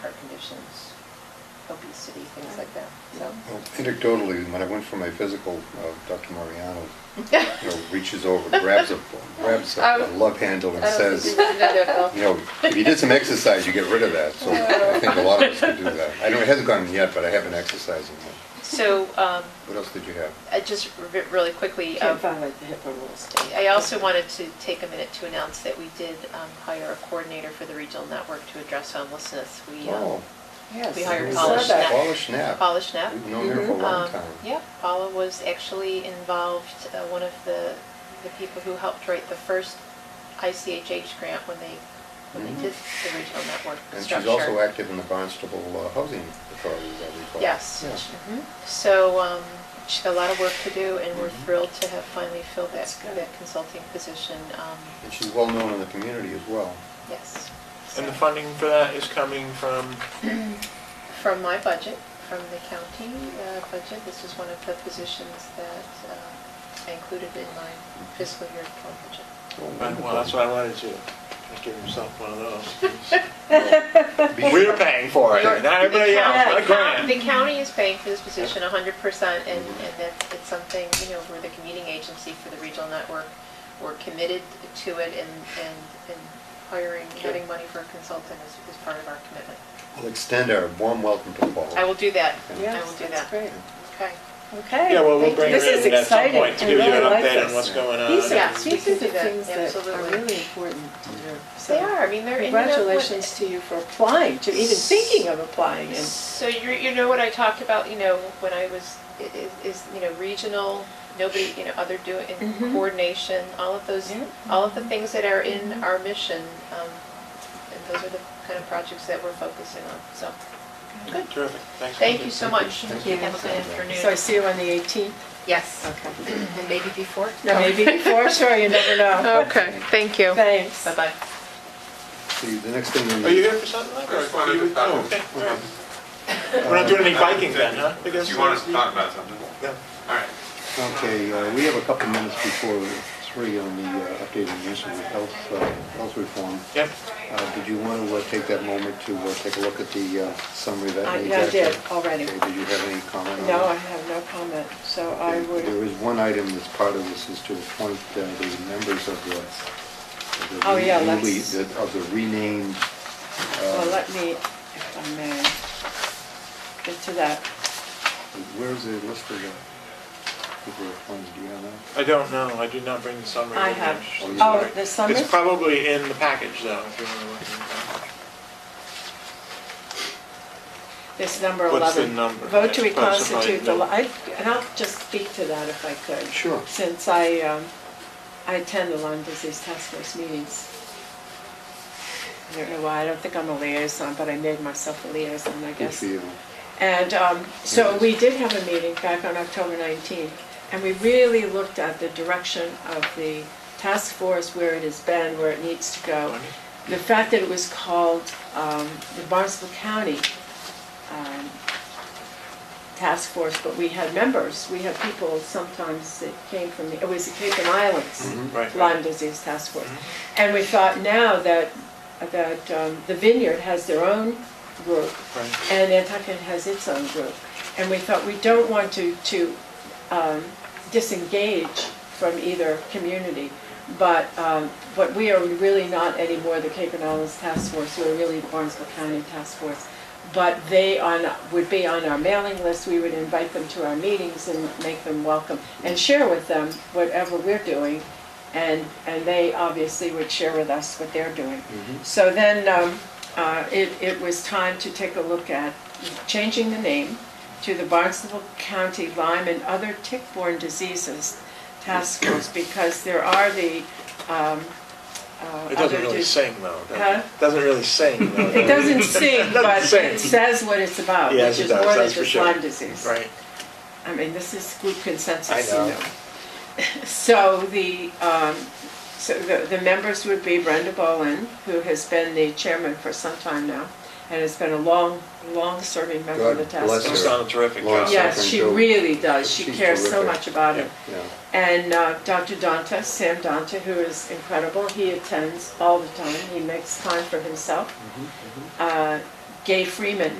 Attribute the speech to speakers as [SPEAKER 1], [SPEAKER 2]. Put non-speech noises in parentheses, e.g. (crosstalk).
[SPEAKER 1] heart conditions, obesity, things like that, so.
[SPEAKER 2] Well, Anecdotally, when I went for my physical, uh, Dr. Mariano, you know, reaches over, grabs a, grabs a a love handle
[SPEAKER 3] Um,
[SPEAKER 2] and
[SPEAKER 1] I don't think
[SPEAKER 2] says,
[SPEAKER 1] we did that at all.
[SPEAKER 2] you know, if you did some exercise, you get rid of that. So I think a lot of us could do that. I know it hasn't gone yet, but I have been exercising.
[SPEAKER 3] (laughs) So, um,
[SPEAKER 2] What else did you have?
[SPEAKER 3] I just re- really quickly, um,
[SPEAKER 4] Can't violate the HIPAA rules.
[SPEAKER 3] I also wanted to take a minute to announce that we did um, hire a coordinator for the regional network to address homelessness. We, um,
[SPEAKER 2] Oh,
[SPEAKER 4] Yes.
[SPEAKER 3] We hired
[SPEAKER 4] I
[SPEAKER 3] Paula
[SPEAKER 4] saw that.
[SPEAKER 3] Schnapp.
[SPEAKER 2] Paula Schnapp.
[SPEAKER 3] Paula Schnapp.
[SPEAKER 2] We've known her for a long
[SPEAKER 3] um,
[SPEAKER 2] time.
[SPEAKER 3] yeah, Paula was actually involved, uh, one of the, the people who helped write the first ICHH grant when they, when
[SPEAKER 2] Mhm.
[SPEAKER 3] they did the regional network
[SPEAKER 2] And
[SPEAKER 3] structure.
[SPEAKER 2] she's also active in the Barnstable uh, Housing Authority, as I recall.
[SPEAKER 3] Yes.
[SPEAKER 2] Yeah.
[SPEAKER 3] Mhm. So um, she's got a lot of work to do, and we're
[SPEAKER 2] Mhm.
[SPEAKER 3] thrilled to have finally filled that
[SPEAKER 4] Mm-hmm. That's good.
[SPEAKER 3] that consulting position. um,
[SPEAKER 2] And she's well-known in the community as
[SPEAKER 5] (laughs)
[SPEAKER 2] well.
[SPEAKER 3] Yes.
[SPEAKER 5] And the
[SPEAKER 3] So-
[SPEAKER 5] funding for that is coming from,
[SPEAKER 3] (clears throat) From my budget, from the county uh, budget, this is one of the positions that uh, I included in my fiscal year 12 budget. (laughs)
[SPEAKER 2] Oh,
[SPEAKER 5] well, that's what I wanted to, just give himself one of those.
[SPEAKER 2] Be-
[SPEAKER 5] We're paying for it,
[SPEAKER 3] You're-
[SPEAKER 5] not everybody
[SPEAKER 3] the
[SPEAKER 5] else,
[SPEAKER 3] county-
[SPEAKER 5] not a
[SPEAKER 3] the county-
[SPEAKER 5] grant.
[SPEAKER 3] The county is paying for this position hundred percent, and,
[SPEAKER 2] Mhm.
[SPEAKER 3] and that, it's something, you know, we're the commuting agency for the regional network. We're committed to it and, and, and hiring, getting money for a consultant is, is part of our commitment.
[SPEAKER 2] We'll extend our warm welcome to Paula.
[SPEAKER 3] I will do that, I will
[SPEAKER 4] Yes,
[SPEAKER 3] do
[SPEAKER 4] that's
[SPEAKER 3] that.
[SPEAKER 4] great.
[SPEAKER 3] Okay.
[SPEAKER 4] Okay.
[SPEAKER 5] Yeah, well, we'll
[SPEAKER 4] thank
[SPEAKER 5] bring
[SPEAKER 4] you.
[SPEAKER 5] her
[SPEAKER 4] This is
[SPEAKER 5] in at some
[SPEAKER 4] exciting.
[SPEAKER 5] point to
[SPEAKER 4] I
[SPEAKER 5] give you an
[SPEAKER 4] really like
[SPEAKER 5] update on
[SPEAKER 4] this.
[SPEAKER 5] what's going on.
[SPEAKER 4] These
[SPEAKER 3] Yeah.
[SPEAKER 4] are, these are the
[SPEAKER 3] Yeah,
[SPEAKER 4] things that are
[SPEAKER 3] absolutely.
[SPEAKER 4] really important to do. So
[SPEAKER 3] They are, I mean, they're. and you know what?
[SPEAKER 4] Congratulations to you for applying, to even thinking of applying. and-
[SPEAKER 3] So you, you know what I talked about, you know, when I was, i- i- is, you know, regional, nobody, you know, other doing, and
[SPEAKER 4] Mhm.
[SPEAKER 3] coordination, all of those,
[SPEAKER 4] Yeah.
[SPEAKER 3] all of the things that are in our mission. um, And those are the kind of projects that we're focusing on, so. Good.
[SPEAKER 5] Terrific, thanks.
[SPEAKER 3] Thank you so much.
[SPEAKER 2] Thank
[SPEAKER 4] you.
[SPEAKER 3] Have a good
[SPEAKER 4] So I
[SPEAKER 3] afternoon.
[SPEAKER 4] see you on the 18th?
[SPEAKER 3] Yes,
[SPEAKER 4] Okay.
[SPEAKER 1] And maybe before?
[SPEAKER 3] Oh.
[SPEAKER 4] Now, Maybe (laughs)
[SPEAKER 3] (laughs)
[SPEAKER 4] before, sure, you never know.
[SPEAKER 3] okay, thank you.
[SPEAKER 4] Thanks.
[SPEAKER 3] Bye-bye.
[SPEAKER 2] See, the next thing we
[SPEAKER 5] Are you here for something like
[SPEAKER 6] I
[SPEAKER 5] that?
[SPEAKER 6] just wanted to talk.
[SPEAKER 5] (laughs) We're not doing any biking then, huh? Because
[SPEAKER 6] You want us to
[SPEAKER 5] there's-
[SPEAKER 6] talk about something?
[SPEAKER 5] Yeah.
[SPEAKER 6] All right.
[SPEAKER 2] Okay, uh, we have a couple minutes before three on the uh, updated mission of health, uh, health reform.
[SPEAKER 5] Yep.
[SPEAKER 2] Uh, Did you want to uh, take that moment to uh, take a look at the uh, summary that
[SPEAKER 4] I-
[SPEAKER 2] May
[SPEAKER 4] yeah, I did
[SPEAKER 2] Jackson-
[SPEAKER 4] already.
[SPEAKER 2] Okay, Did you have any comment on
[SPEAKER 4] No, I
[SPEAKER 2] that?
[SPEAKER 4] have no comment, so I
[SPEAKER 2] There
[SPEAKER 4] would,
[SPEAKER 2] is one item that's part of this, is to appoint uh, the members of the, of the
[SPEAKER 4] Oh, yeah,
[SPEAKER 2] newly-
[SPEAKER 4] let's-
[SPEAKER 2] the- of the renamed. uh,
[SPEAKER 4] well, let me, if I may, get to that.
[SPEAKER 2] Where's the list of the people appointed, do you have that?
[SPEAKER 5] I don't know, I did not bring the summary.
[SPEAKER 4] I
[SPEAKER 5] with me.
[SPEAKER 4] have,
[SPEAKER 2] Oh, you
[SPEAKER 4] oh,
[SPEAKER 2] sorry.
[SPEAKER 4] the summer,
[SPEAKER 5] It's probably in the package though, if you want to look. at it.
[SPEAKER 4] this number 11.
[SPEAKER 5] What's the number?
[SPEAKER 4] Vote to
[SPEAKER 5] It's supposed to
[SPEAKER 4] reconstitute the,
[SPEAKER 5] probably
[SPEAKER 4] li- I- and I'll just speak to that if I could.
[SPEAKER 2] Sure.
[SPEAKER 4] Since I, um, I attend the Lyme Disease Task Force meetings. I don't know why, I don't think I'm a liaison, but I made myself a liaison, I
[SPEAKER 2] Good
[SPEAKER 4] guess.
[SPEAKER 2] for you.
[SPEAKER 4] And um, so we did have a meeting back on October 19th, and we really looked at the direction of the task force, where it has been, where it needs to go. The fact that it was called um, the Barnstable County um, Task Force, but we had members, we had people sometimes that came from, the it was the Cape and Islands
[SPEAKER 5] Mm-hmm. Right. Mm-hmm.
[SPEAKER 4] Lyme Disease Task Force. And we thought now that, that um, the Vineyard has their own group,
[SPEAKER 5] Right.
[SPEAKER 4] and Nantucket has its own group. And we thought, we don't want to, to um, disengage from either community, but, um, but we are really not anymore the Cape and Islands Task Force, we're really the Barnstable County Task Force. But they on, would be on our mailing list, we would invite them to our meetings and make them welcome, and share with them whatever we're doing, and, and they obviously would share with us what they're doing.
[SPEAKER 5] Mm-hmm.
[SPEAKER 4] So then, um, uh, it, it was time to take a look at changing the name to the Barnstable County Lyme and Other Tick-Borne Diseases Task Force, because there are the, um, uh,
[SPEAKER 5] It doesn't
[SPEAKER 4] other
[SPEAKER 5] really
[SPEAKER 4] dis-
[SPEAKER 5] sing though,
[SPEAKER 4] Huh?
[SPEAKER 5] does it? Doesn't really sing though.
[SPEAKER 4] It doesn't sing,
[SPEAKER 5] (laughs) It doesn't
[SPEAKER 4] but
[SPEAKER 5] sing.
[SPEAKER 4] it says what it's about,
[SPEAKER 5] Yes,
[SPEAKER 4] which
[SPEAKER 5] it
[SPEAKER 4] is
[SPEAKER 5] does,
[SPEAKER 4] more than
[SPEAKER 5] that's for
[SPEAKER 4] just
[SPEAKER 5] sure.
[SPEAKER 4] Lyme disease.
[SPEAKER 5] Right.
[SPEAKER 4] I mean, this is group consensus,
[SPEAKER 5] I
[SPEAKER 4] you
[SPEAKER 5] know.
[SPEAKER 4] know. (laughs) So the, um, so the, the members would be Brenda Bolin, who has been the chairman for some time now, and has been a long, long-serving member of the
[SPEAKER 2] God
[SPEAKER 4] task
[SPEAKER 2] bless
[SPEAKER 5] It's
[SPEAKER 4] force.
[SPEAKER 2] her.
[SPEAKER 5] done a terrific
[SPEAKER 2] Lawrence.
[SPEAKER 5] job.
[SPEAKER 4] Yes,
[SPEAKER 2] Something
[SPEAKER 4] she
[SPEAKER 2] to-
[SPEAKER 4] really does, she
[SPEAKER 2] She's
[SPEAKER 4] cares so
[SPEAKER 2] terrific.
[SPEAKER 4] much about it.
[SPEAKER 2] Yeah.
[SPEAKER 4] And uh, Dr. Danta, Sam Danta, who is incredible, he attends all the time, he makes time for himself. Uh, Gay Freeman